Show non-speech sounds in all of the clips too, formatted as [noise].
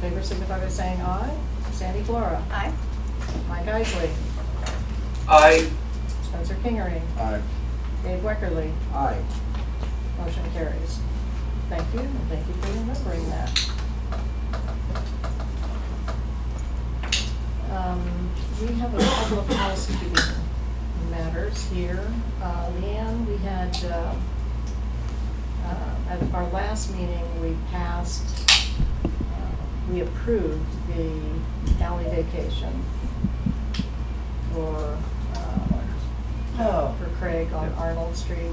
favor signify by saying aye. Sandy Flora. Aye. Mike Isley. Aye. Spencer Kingery. Aye. Dave Weckerly. Aye. Motion carries. Thank you, and thank you for remembering that. Um, We have a couple of housekeeping matters here. Uh, Leanne, we had, uh, uh, at our last meeting, we passed, uh, we approved the alley vacation for uh, Oh. for Craig on Arnold Street.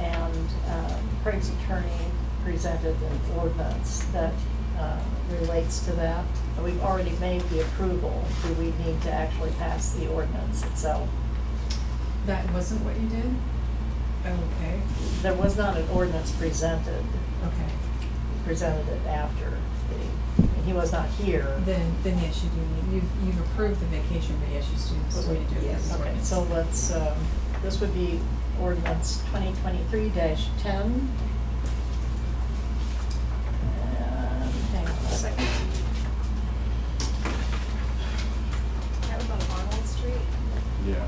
And um, Craig's attorney presented an ordinance that uh, relates to that. And we've already made the approval. Do we need to actually pass the ordinance itself? That wasn't what you did? Oh, Okay, There was not an ordinance presented, okay. presented it after the, and he was not here. Then, then yes, you do, need- you've, you've approved the vacation, but yes, you still, still need to do this Okay, ordinance. so let's, um, this would be ordinance twenty twenty-three ten. And hang on a second. That was on Arnold Street. Yeah.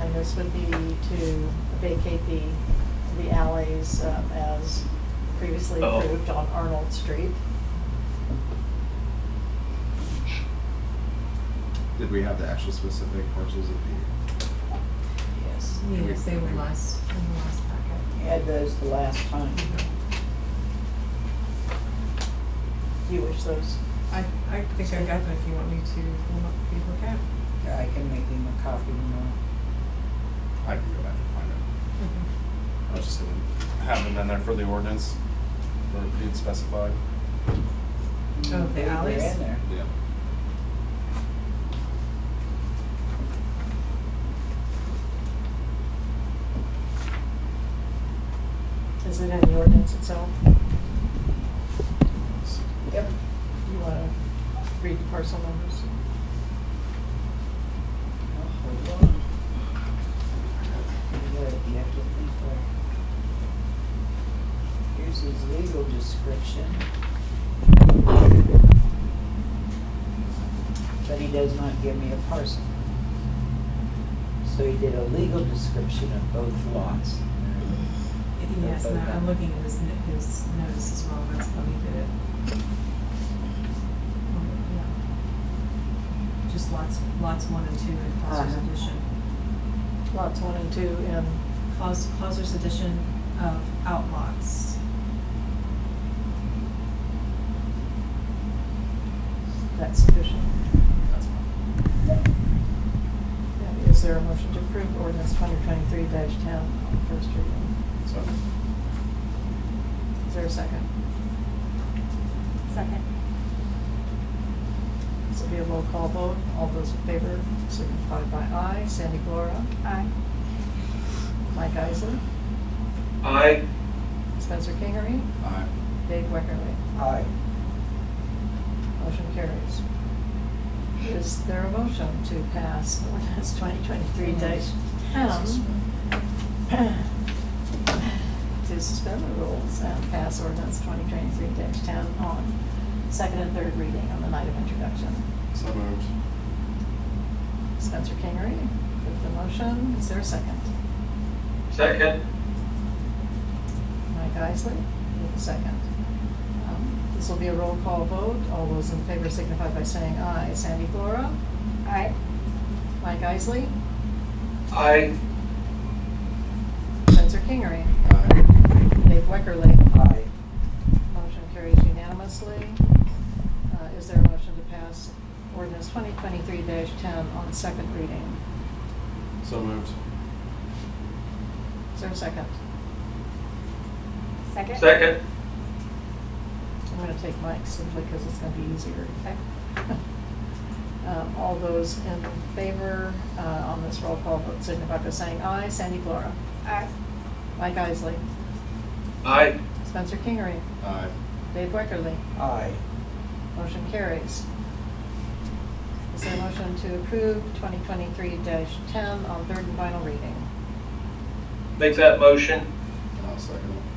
And this would be to vacate the, the alleys um, as previously Oh. approved on Arnold Street. Did we have the actual specific parcels of the? Yes. Yes, they were last, in the last packet. Had those the last time. You wish those, I, I think I got them if you want me to, look- if you look at. I can make him a copy now. I can go back and find it. I was just gonna have them in there for the ordinance, for being specified. Oh, They the were alleys? in there. Yeah. is it in the ordinance itself? Yep. You wanna read the parcel numbers? Oh, hold on. You gotta- you have to think like- Here's his legal description. But he does not give me a parcel. So he did a legal description of both lots. Yes, and I'm looking at his, n- his notice as well, that's how he did it. Oh, Yeah. Just lots, lots one and two in Foster's Uh-huh. addition. Lots one and two in, Claus, Clauser's edition of Outlaws. that's sufficient. And Is there a motion to approve ordinance twenty twenty-three ten on first reading? So, Is there a second? Second. This will be a roll call vote. All those in favor signify by aye. Sandy Flora, Aye. Mike Isley, Aye. Spencer Kingery, aye. Dave Weckerly. Aye. Motion carries. Is there a motion to pass ordinance [laughs] twenty twenty-three dash ten? [clears throat] To suspend the rules and pass ordinance twenty twenty-three dash ten on second and third reading on the night of introduction. So moved. Spencer Kingery with the motion. Is there a second? Second. Mike Isley, with a second. Um, This will be a roll call vote. All those in favor signify by saying aye. Sandy Flora, Aye. Mike Isley, Aye. Spencer Kingery, Aye. Dave Weckerly. Aye. Motion carries unanimously. Uh, Is there a motion to pass ordinance 2023-10 on second reading? So moved. Is there a second? Second? Second. I'm going to take Mike simply because it's going to be easier. Okay. [laughs] Um, All those in favor uh, on this roll call vote signify by saying aye. Sandy Flora. Aye. Mike Isley. Aye. Spencer Kingery. Aye. Dave Weckerly. Aye. Motion carries. Is there a motion to approve 2023-10 on third and final reading? Make that motion. I'll second it.